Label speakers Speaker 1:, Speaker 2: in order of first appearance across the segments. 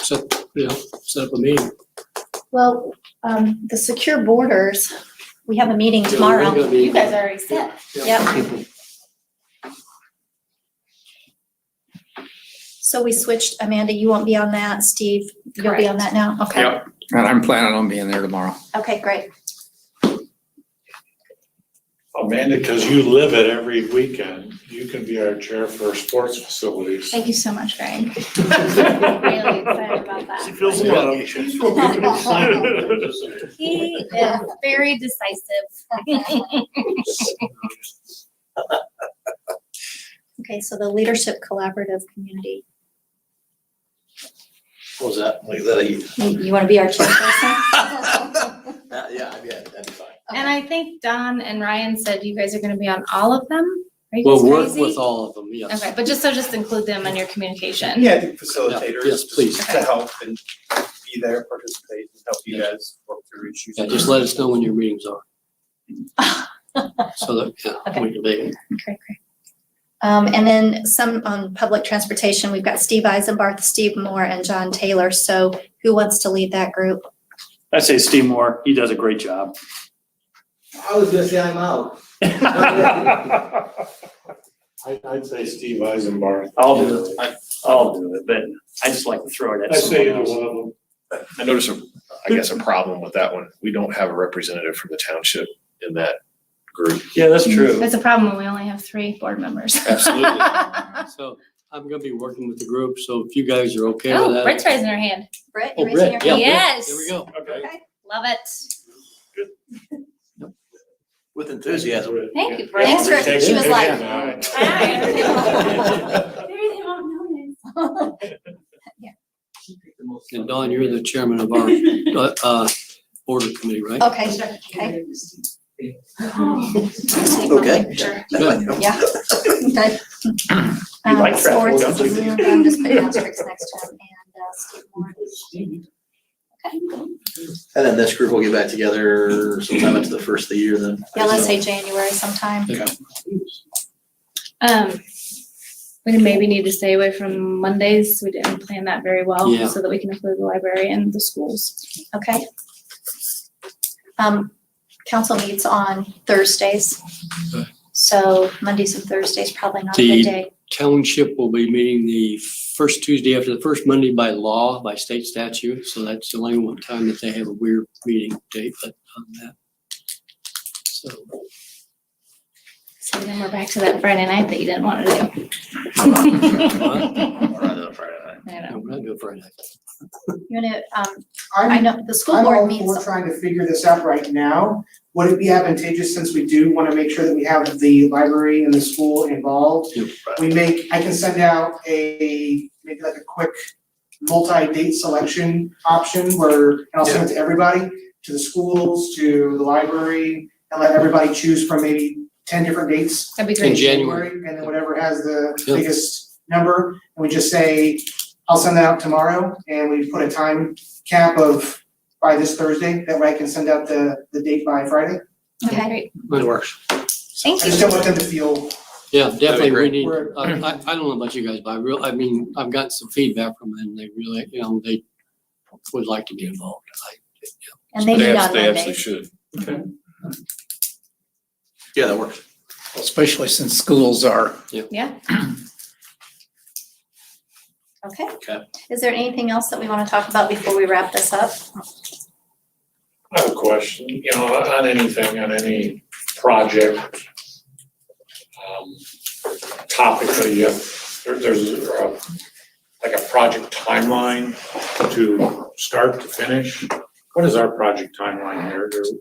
Speaker 1: set, you know, set up a meeting.
Speaker 2: Well, um, the secure borders, we have a meeting
Speaker 1: Yeah, we're gonna
Speaker 2: tomorrow.
Speaker 1: be-
Speaker 3: You guys already said.
Speaker 2: Yep. So we switched, Amanda, you won't be on that, Steve, you'll be on that now, okay?
Speaker 1: Yep.
Speaker 4: And I'm planning on being there tomorrow.
Speaker 2: Okay, great.
Speaker 5: Amanda, because you live it every weekend, you can be our chair for sports facilities.
Speaker 2: Thank you so much, Greg.
Speaker 3: Really excited about that.
Speaker 5: feels
Speaker 1: a lot
Speaker 3: He is very decisive.
Speaker 2: Okay, so the Leadership Collaborative Community,
Speaker 6: What was that? Like, is that a?
Speaker 2: you you wanna be our chairperson?
Speaker 6: Uh, yeah, I mean, that'd be fine.
Speaker 3: And I think Don and Ryan said you guys are gonna be on all of them. Are you guys
Speaker 1: We'll work
Speaker 3: crazy?
Speaker 1: with all of them, yes.
Speaker 3: Okay, but just so just include them in your communication.
Speaker 7: Yeah, I think facilitators.
Speaker 1: Yes, please.
Speaker 7: To help and be there, participate, and help you guys work through issues.
Speaker 1: Yeah, just let us know when your meetings are. So that, yeah, we can be,
Speaker 2: Okay, great. Um, and then some on public transportation, we've got Steve Eisenbarth, Steve Moore, and John Taylor, so who wants to lead that group?
Speaker 8: I say Steve Moore, he does a great job.
Speaker 6: I was gonna say I'm out.
Speaker 8: I'll
Speaker 5: I'd, I'd say Steve Eisenbarth.
Speaker 8: do it, I- I'll do it, but I just like to throw it
Speaker 5: I
Speaker 8: at someone
Speaker 5: say either
Speaker 8: else.
Speaker 5: one of them.
Speaker 9: I notice, a- I guess, a problem with that one. We don't have a representative from the township in that group.
Speaker 8: Yeah, that's true.
Speaker 3: That's a problem when we only have three board members.
Speaker 9: Absolutely.
Speaker 1: so I'm gonna be working with the group, so if you guys are okay with
Speaker 3: Oh,
Speaker 1: that.
Speaker 3: Britt's raising her hand.
Speaker 2: Brett,
Speaker 1: Oh,
Speaker 2: you raising your
Speaker 1: Brett, yeah,
Speaker 2: hand?
Speaker 1: Brett,
Speaker 3: Yes.
Speaker 1: There we go.
Speaker 5: Okay.
Speaker 3: Love it.
Speaker 6: With enthusiasm.
Speaker 3: Thank you, Brett.
Speaker 2: Thanks, Rick. She was like,
Speaker 1: And Don, you're the chairman of our, uh, uh, order committee, right?
Speaker 2: okay, okay.
Speaker 6: Okay.
Speaker 2: Sure.
Speaker 1: Good.
Speaker 2: Yeah. Good. Um,
Speaker 8: like traffic,
Speaker 2: Swartz
Speaker 8: don't
Speaker 2: is new, I'm just putting asterisks next to him, and, uh, Steve Moore. Okay.
Speaker 6: And then this group will get back together sometime after the first of the year then.
Speaker 2: Yeah, let's say January sometime.
Speaker 3: Um, we maybe need to stay away from Mondays. We didn't plan that very well
Speaker 1: Yeah.
Speaker 3: so that we can include the library and the schools.
Speaker 2: Okay. Um, council meets on Thursdays.
Speaker 1: Okay.
Speaker 2: So Mondays and Thursdays probably not a good
Speaker 1: The-
Speaker 2: day.
Speaker 1: Township will be meeting the first Tuesday after the first Monday by law, by state statute, so that's the only one time that they have a weird meeting date, but on that. So,
Speaker 3: So then we're back to that Friday night that you didn't want to do. I
Speaker 6: Or on the Friday night.
Speaker 3: know.
Speaker 1: no, we're not doing Friday.
Speaker 2: You wanna, um, I
Speaker 10: I'm,
Speaker 2: know the school
Speaker 10: I'm
Speaker 2: board
Speaker 10: all
Speaker 2: meets.
Speaker 10: for trying to figure this out right now. Would it be advantageous, since we do wanna make sure that we have the library and the school involved?
Speaker 1: Yep.
Speaker 10: We make, I can send out a, maybe like a quick multi-date selection option where, and I'll send it to everybody, to the schools, to the library, and let everybody choose from maybe ten different dates.
Speaker 3: That'd be
Speaker 1: In
Speaker 3: great.
Speaker 1: January.
Speaker 10: And then whatever has the
Speaker 1: Yeah.
Speaker 10: biggest number, and we just say, I'll send that out tomorrow, and we put a time cap of by this Thursday, that way I can send out the, the date by Friday.
Speaker 2: Okay.
Speaker 3: Great.
Speaker 1: It works.
Speaker 10: I
Speaker 3: Thank
Speaker 10: just don't
Speaker 3: you.
Speaker 10: want them to feel,
Speaker 1: Yeah, definitely, we
Speaker 6: great.
Speaker 1: need,
Speaker 10: We're-
Speaker 1: I, I, I don't know about you guys, but I real, I mean, I've gotten some feedback from them, they really, you know, they would like to be involved. I-
Speaker 2: And they
Speaker 9: They
Speaker 2: meet
Speaker 9: abs-
Speaker 2: on
Speaker 9: They absolutely
Speaker 2: Mondays.
Speaker 9: should.
Speaker 6: Yeah, that works.
Speaker 4: Especially since schools are
Speaker 3: Yeah.
Speaker 2: Okay.
Speaker 6: Okay.
Speaker 2: Is there anything else that we wanna talk about before we wrap this up?
Speaker 5: I have a question, you know, on anything, on any project, um, topic that you, there, there's a, like a project timeline to start to finish. What is our project timeline here? Do-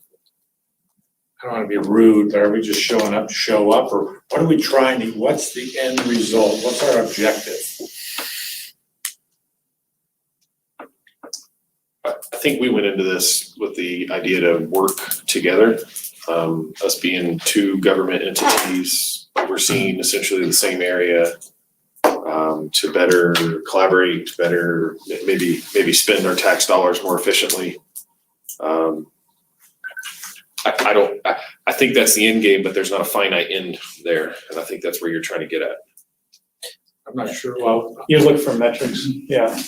Speaker 5: I don't wanna be rude, but are we just showing up, to show up, or what are we trying to, what's the end result? What's our objective?
Speaker 9: I I think we went into this with the idea to work together. Um, us being two government entities, we're seeing essentially the same area. Um, to better collaborate, to better ma- maybe, maybe spend our tax dollars more efficiently. Um, I, I don't, I, I think that's the end game, but there's not a finite end there. And I think that's where you're trying to get at.
Speaker 5: I'm not sure, well, you look for metrics, yeah.